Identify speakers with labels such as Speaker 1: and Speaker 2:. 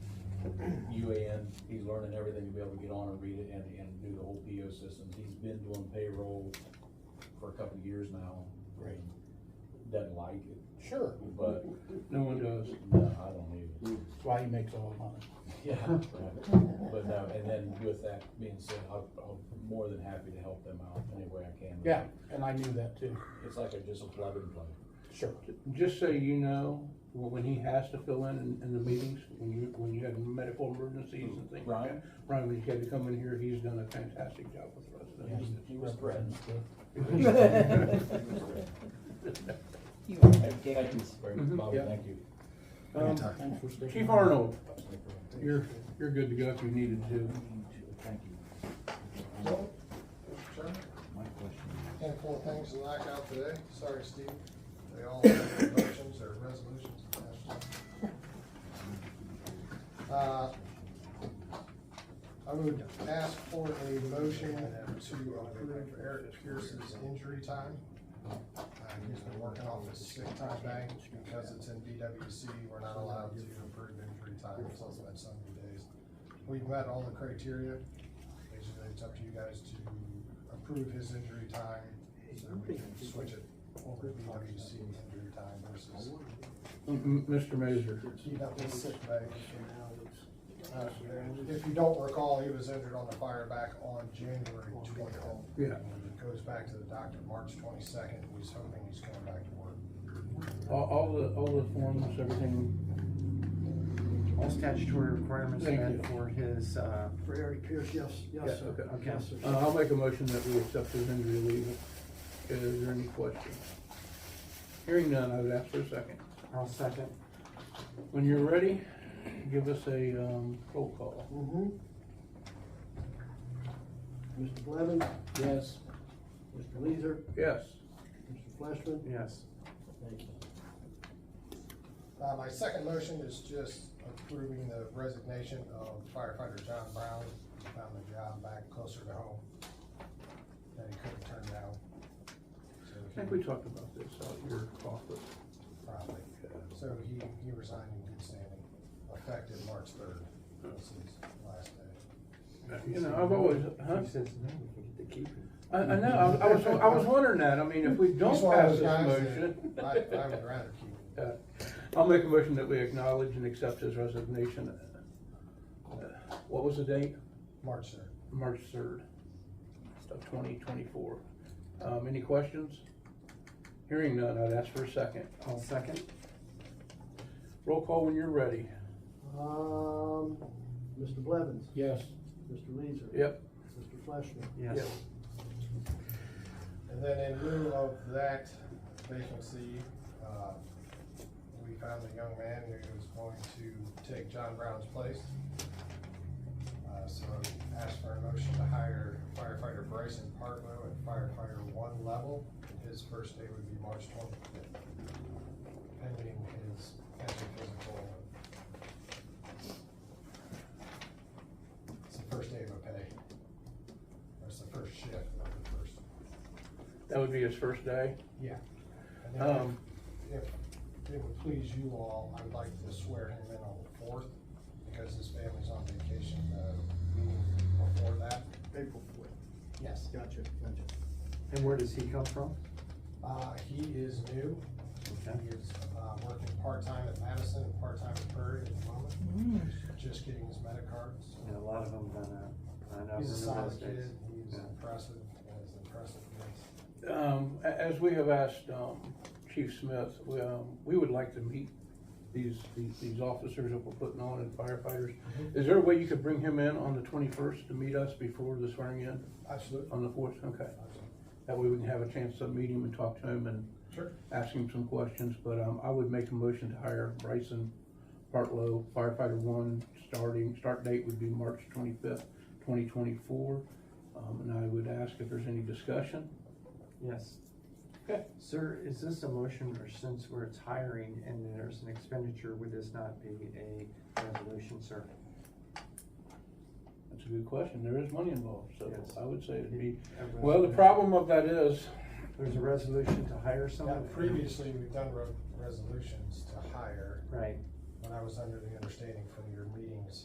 Speaker 1: UAN, he's learning everything to be able to get on and read it and, and do the whole PO systems. He's been doing payroll for a couple of years now.
Speaker 2: Right.
Speaker 1: Doesn't like it,
Speaker 2: Sure.
Speaker 1: but,
Speaker 3: No one does.
Speaker 1: no, I don't need it.
Speaker 3: Hmm.
Speaker 2: That's why he makes all the money.
Speaker 1: Yeah, right. but no, and then with that being said, I'm, I'm more than happy to help them out any way I can.
Speaker 2: Yeah, and I knew that too.
Speaker 1: It's like a, just a plug and play.
Speaker 2: Sure.
Speaker 3: Just so you know, when he has to fill in, in, in the meetings, when you, when you have medical emergencies and things like that. Ryan, when he's had to come in here, he's done a fantastic job with us.
Speaker 2: Yeah, he-
Speaker 1: He was threatened.
Speaker 3: Um,
Speaker 4: You are
Speaker 1: Thank you
Speaker 4: ridiculous.
Speaker 1: very
Speaker 3: Mhm.
Speaker 1: much, Bobby,
Speaker 3: Yeah.
Speaker 1: thank you.
Speaker 3: Um, Chief Arnold, you're, you're good to go if you needed to.
Speaker 1: Thank you.
Speaker 5: Well, Mr. Chairman,
Speaker 1: My question
Speaker 5: handful of things to knock out today. Sorry, Steve. They all have motions or resolutions attached. Uh, I would ask for a motion to approve Eric Pierce's injury time. Uh, He's been working off his sick time bank because it's in DWC. We're not allowed to approve injury time until it's been so many days. We've met all the criteria. Basically, it's up to you guys to approve his injury time, so we can switch it over to BWC injury time versus
Speaker 3: M- Mr. Mazur,
Speaker 5: keep up his sick bay. Uh, If you don't recall, he was injured on the fire back on January twentieth.
Speaker 3: yeah,
Speaker 5: Goes back to the doctor March twenty-second, he's hoping he's coming back to work.
Speaker 3: all, all the, all the forms, everything,
Speaker 6: All statutory requirements
Speaker 3: Thank
Speaker 6: met
Speaker 3: you.
Speaker 6: for his, uh,
Speaker 7: For Eric Pierce, yes,
Speaker 3: Yeah,
Speaker 7: yes, sir.
Speaker 3: okay, okay.
Speaker 7: Yes, sir.
Speaker 3: uh, I'll make a motion that we accept his injury leave. Is there any questions? Hearing none, I would ask for a second.
Speaker 6: I'll second.
Speaker 3: When you're ready, give us a, um, roll call.
Speaker 7: Mhm. Mr. Blevins,
Speaker 1: Yes.
Speaker 7: Mr. Leeser,
Speaker 3: Yes,
Speaker 7: Mr. Fleshman,
Speaker 6: Yes.
Speaker 5: Uh, my second motion is just approving the resignation of firefighter John Brown, He found a job back closer to home that he couldn't turn down. So
Speaker 3: I think we
Speaker 5: he
Speaker 3: talked about this out at your office.
Speaker 5: Probably, so he, he resigned in good standing, effective March third, this is his last day.
Speaker 3: You know, I've always, huh?
Speaker 6: He says, no, we can get to keep him.
Speaker 3: I, I know, I, I was, I was wondering that, I mean, if we don't
Speaker 5: He's one of
Speaker 3: pass
Speaker 5: those
Speaker 3: this
Speaker 5: guys that
Speaker 3: motion.
Speaker 5: I, I would rather keep him.
Speaker 3: Uh, I'll make a motion that we acknowledge and accept his resignation. Uh, What was the date?
Speaker 5: March third.
Speaker 3: March third of twenty twenty-four. Um, any questions? Hearing none, I'd ask for a second.
Speaker 6: I'll second.
Speaker 3: Roll call when you're ready.
Speaker 7: um, Mr. Blevins,
Speaker 3: Yes.
Speaker 7: Mr. Leeser.
Speaker 3: Yep,
Speaker 7: Mr. Fleshman.
Speaker 6: Yes.
Speaker 5: And then in lieu of that vacancy, uh, we found a young man who was going to take John Brown's place. Uh, so asked for a motion to hire firefighter Bryson Partlow at firefighter one level. His first day would be March twenty-fifth. Pending his, pending physical. It's the first day of a pay. That's the first shift of the first.
Speaker 3: that would be his first day.
Speaker 5: Yeah. And then
Speaker 3: Um,
Speaker 5: if if it would please you all, I'd like to swear him in on the fourth, because his family's on vacation, uh, meeting before that.
Speaker 7: April fourth.
Speaker 5: Yes.
Speaker 7: Gotcha, gotcha.
Speaker 6: And where does he come from?
Speaker 5: Uh, he is new, he is, uh, working part-time at Madison and part-time at Prairie at the moment,
Speaker 4: Mm.
Speaker 5: just getting his medic card,
Speaker 6: Yeah, a
Speaker 5: so.
Speaker 6: lot of them done that. I know.
Speaker 5: He's a
Speaker 6: remember those
Speaker 5: solid
Speaker 6: days.
Speaker 5: kid, he's
Speaker 6: Yeah.
Speaker 5: impressive, as impressive as,
Speaker 3: Um, a- as we have asked, um, Chief Smith, we, um, we would like to meet these, these, these officers that we're putting on and firefighters. Is there a way you could bring him in on the twenty-first to meet us before the swearing in
Speaker 5: absolutely.
Speaker 3: on the fourth? Okay. That way we can have a chance to meet him and talk to him and
Speaker 5: Sure.
Speaker 3: ask him some questions, but, um, I would make a motion to hire Bryson Partlow, firefighter one, starting, start date would be March twenty-fifth, twenty twenty-four. Um, and I would ask if there's any discussion.
Speaker 6: Yes.
Speaker 3: Okay.
Speaker 6: Sir, is this a motion or since we're it's hiring and there's an expenditure, would this not be a resolution, sir?
Speaker 3: That's a good question. There is money involved, so
Speaker 6: Yes.
Speaker 3: I would say it'd be,
Speaker 6: A
Speaker 3: well, the
Speaker 6: resolution-
Speaker 3: problem of that is,
Speaker 6: There's a resolution to hire
Speaker 5: Now,
Speaker 6: someone?
Speaker 5: previously, we've done re- resolutions to hire,
Speaker 6: Right.
Speaker 5: when I was under the understanding from your meetings